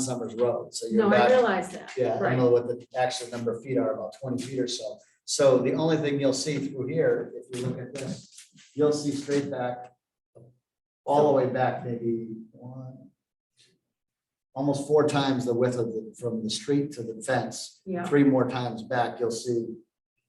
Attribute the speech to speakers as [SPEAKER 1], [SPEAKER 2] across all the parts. [SPEAKER 1] Summers Road, so you're
[SPEAKER 2] No, I
[SPEAKER 1] back.
[SPEAKER 2] realize that.
[SPEAKER 1] Yeah, I don't
[SPEAKER 2] Right.
[SPEAKER 1] know what the actual number of feet are, about twenty feet or so. So the only thing you'll see through here, if you look at this, you'll see straight back, all the way back, maybe one, almost four times the width of the, from the street to the fence.
[SPEAKER 2] Yeah,
[SPEAKER 1] Three more times back, you'll see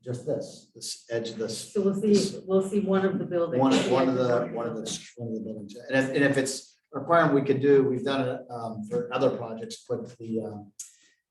[SPEAKER 1] just this, this edge of this
[SPEAKER 2] so we'll see, we'll see one of the buildings.
[SPEAKER 1] One, one of the, one of the, one of the buildings, and if, and if it's a requirement, we could do, we've done it, um, for other projects, put the, um.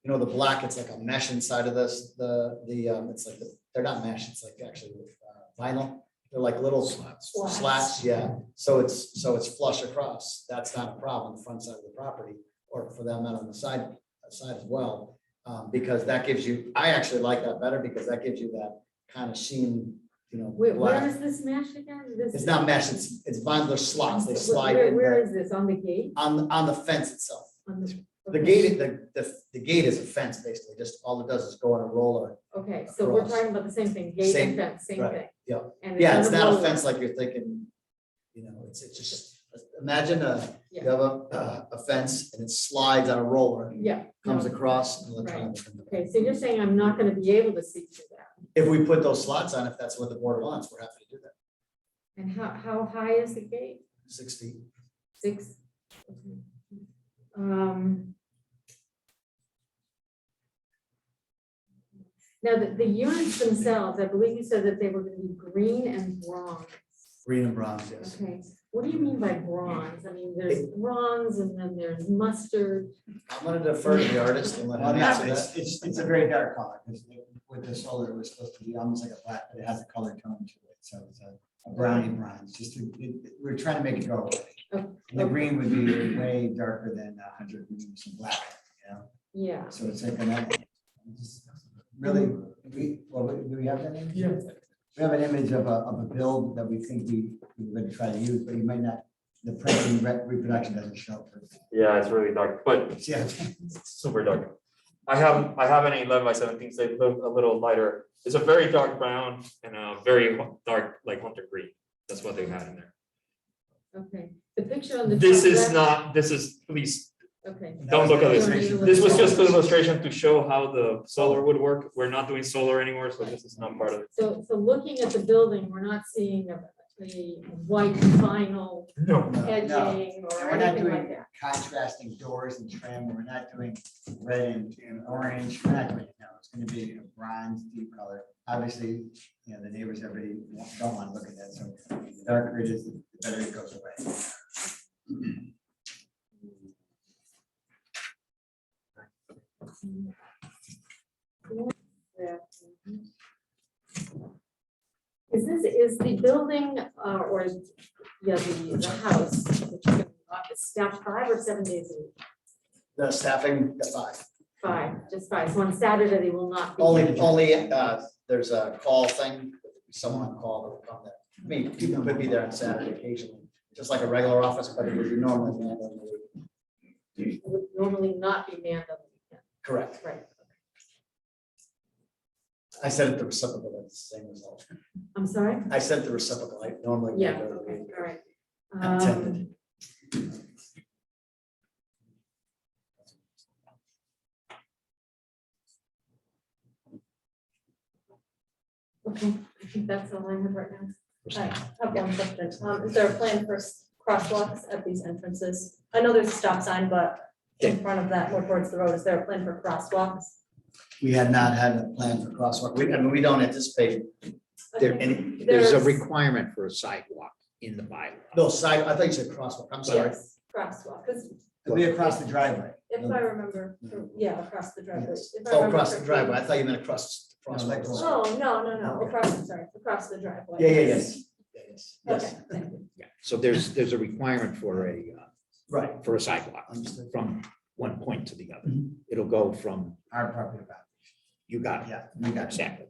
[SPEAKER 1] You know, the black, it's like a mesh inside of this, the, the, um, it's like, the- they're not mesh, it's like actually uh, vinyl, they're like little. Slats. Slats, yeah, so it's, so it's flush across, that's not a problem, the front side of the property, or for that matter, on the side, uh, side as well. Um, because that gives you, I actually like that better, because that gives you that kind of sheen, you know.
[SPEAKER 2] Where,
[SPEAKER 1] black.
[SPEAKER 2] where is this mesh again? This-
[SPEAKER 1] It's not mesh, it's, it's vinyl, there's slots, they
[SPEAKER 2] Where-
[SPEAKER 1] slide
[SPEAKER 2] where-
[SPEAKER 1] in
[SPEAKER 2] Where
[SPEAKER 1] the-
[SPEAKER 2] is this, on the gate?
[SPEAKER 1] on, on the fence itself.
[SPEAKER 2] On
[SPEAKER 1] The gate, the, the, the gate is a fence, basically, just all it does is go on a roller.
[SPEAKER 2] Okay, so we're
[SPEAKER 1] across.
[SPEAKER 2] talking about the same thing, gate
[SPEAKER 1] Same,
[SPEAKER 2] and fence, same
[SPEAKER 1] right,
[SPEAKER 2] thing.
[SPEAKER 1] yeah.
[SPEAKER 2] And
[SPEAKER 1] Yeah, it's
[SPEAKER 2] on
[SPEAKER 1] not a
[SPEAKER 2] road.
[SPEAKER 1] fence like you're thinking, you know, it's, it's just, imagine a, you
[SPEAKER 2] Yeah.
[SPEAKER 1] have a, a- a fence and it slides on a roller,
[SPEAKER 2] Yeah. no.
[SPEAKER 1] comes across. and then
[SPEAKER 2] Right.
[SPEAKER 1] comes in.
[SPEAKER 2] Okay, so you're saying I'm not gonna be able to see through that?
[SPEAKER 1] If we put those slots on, if that's what the board wants, we're happy to do that,
[SPEAKER 2] And how, how high is the gate?
[SPEAKER 1] six feet.
[SPEAKER 2] Six? Okay. Um. Now, the, the units themselves, I believe you said that they were gonna be green and bronze.
[SPEAKER 1] green and bronze, yes.
[SPEAKER 2] Okay, what do you mean by bronze? I mean, there's bronze and then there's mustard.
[SPEAKER 1] I'm gonna defer to the artist and let
[SPEAKER 3] Well,
[SPEAKER 1] him
[SPEAKER 3] no,
[SPEAKER 1] answer that.
[SPEAKER 3] it's, it's, it's a very dark color, because with the solar, it was supposed to be almost like a black, but it has a color tone to it, so it's a a browny bronze, just, to- it, it- we're trying to make it go away.
[SPEAKER 2] Oh,
[SPEAKER 3] And the
[SPEAKER 2] okay.
[SPEAKER 3] green would be way darker than a hundred, maybe some black, you know,
[SPEAKER 2] Yeah,
[SPEAKER 3] so it's like an. Really, we, well, we- do we have that? image? We have an image of a, of a build that we think we, we're gonna try to use, but you might not, the printing re- reproduction doesn't show. up perfect.
[SPEAKER 4] Yeah, it's really dark, but
[SPEAKER 3] Yeah.
[SPEAKER 4] it's super dark. I have, I have an eleven by seventeen, so they look a little lighter. It's a very dark brown and a very hu- dark, like hunter green. That's what they had in there.
[SPEAKER 2] okay. The picture on the.
[SPEAKER 4] This
[SPEAKER 2] top
[SPEAKER 4] is
[SPEAKER 2] left-
[SPEAKER 4] not, this is, please,
[SPEAKER 2] Okay,
[SPEAKER 4] Don't look at this. this was just an
[SPEAKER 3] a
[SPEAKER 4] illustration to show how the solar would work. We're not doing solar anymore, so this is not part of it.
[SPEAKER 2] so, so looking at the building, we're not seeing a, a white vinyl
[SPEAKER 4] No.
[SPEAKER 2] edging
[SPEAKER 3] And
[SPEAKER 2] or
[SPEAKER 3] we're not
[SPEAKER 2] anything like
[SPEAKER 3] doing
[SPEAKER 2] that.
[SPEAKER 3] contrasting doors and trim, we're not doing red and, and orange, we're not doing, no, it's gonna be a bronze deep color. Obviously, you know, the neighbors, everybody wa- don't wanna look at that, so the darker it is, the better it goes away.
[SPEAKER 2] Is this, is the building, uh, or, is- yeah, the, the house, which is staffed five or seven days a week?
[SPEAKER 1] The staffing, the five.
[SPEAKER 2] Five, just five, so on Saturday they will not be.
[SPEAKER 1] Only, only, uh, there's a call thing, someone on call that will come there. I mean, people could be there on Saturday occasionally, just like a regular office, but it would be normally. manned on the weekend.
[SPEAKER 2] Would normally not be manned on the
[SPEAKER 1] Correct.
[SPEAKER 2] weekend, right?
[SPEAKER 1] I said it the reciprocal, that's the same result.
[SPEAKER 2] I'm sorry?
[SPEAKER 1] I said the reciprocal, I normally. would
[SPEAKER 2] Yeah,
[SPEAKER 1] go to the
[SPEAKER 2] okay,
[SPEAKER 1] weekend.
[SPEAKER 2] all right.
[SPEAKER 1] Intended.
[SPEAKER 5] Um,
[SPEAKER 2] Um, Okay, I think that's all I have right now.
[SPEAKER 5] I have one question. Um, is there a plan for s- crosswalks at these entrances? I know there's a stop sign, but in front of that, more towards the road, is there a plan for crosswalks?
[SPEAKER 1] We had not had a plan for crosswalk, we, I mean, we don't anticipate,
[SPEAKER 5] Okay.
[SPEAKER 6] And there's a
[SPEAKER 5] There's-
[SPEAKER 6] requirement for a sidewalk in the bylaw.
[SPEAKER 1] no, side, I think you said crosswalk, I'm sorry.
[SPEAKER 5] Yes, Crosswalk, because
[SPEAKER 3] It'll be across the driveway.
[SPEAKER 5] if I remember, yeah, across the driveway.
[SPEAKER 3] Yes.
[SPEAKER 5] if I
[SPEAKER 1] Oh,
[SPEAKER 5] remember
[SPEAKER 1] across the
[SPEAKER 5] correctly-
[SPEAKER 1] driveway, I thought you meant across, crosswalk.
[SPEAKER 3] No, like-
[SPEAKER 5] Oh, no, no, no, across, I'm sorry, across the driveway.
[SPEAKER 1] Yeah, yeah, yes, Yeah, yes,
[SPEAKER 5] Okay,
[SPEAKER 1] yes,
[SPEAKER 5] thank you.
[SPEAKER 6] Yeah, so there's, there's a requirement for a, uh,
[SPEAKER 1] right,
[SPEAKER 6] for a sidewalk
[SPEAKER 1] understood.
[SPEAKER 6] from one point to the other. It'll go from,
[SPEAKER 3] Our property boundary,
[SPEAKER 6] you got it,
[SPEAKER 3] yeah, we got that.
[SPEAKER 6] exactly.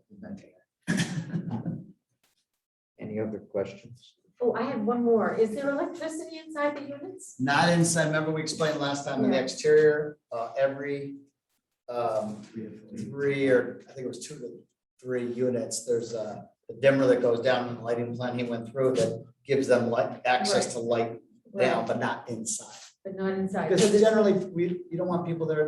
[SPEAKER 6] Any other questions?
[SPEAKER 2] Oh, I have one more. Is there electricity inside the units?
[SPEAKER 1] Not inside, remember we explained last time in the
[SPEAKER 2] Yeah.
[SPEAKER 1] exterior, uh, every, um, three or, I think it was two to three units, there's a a dimmer that goes down in the lighting plan he went through that gives them light, access to light down, but not inside.
[SPEAKER 2] but not inside. So
[SPEAKER 1] Because
[SPEAKER 2] there's no-
[SPEAKER 1] generally, we, you don't want people there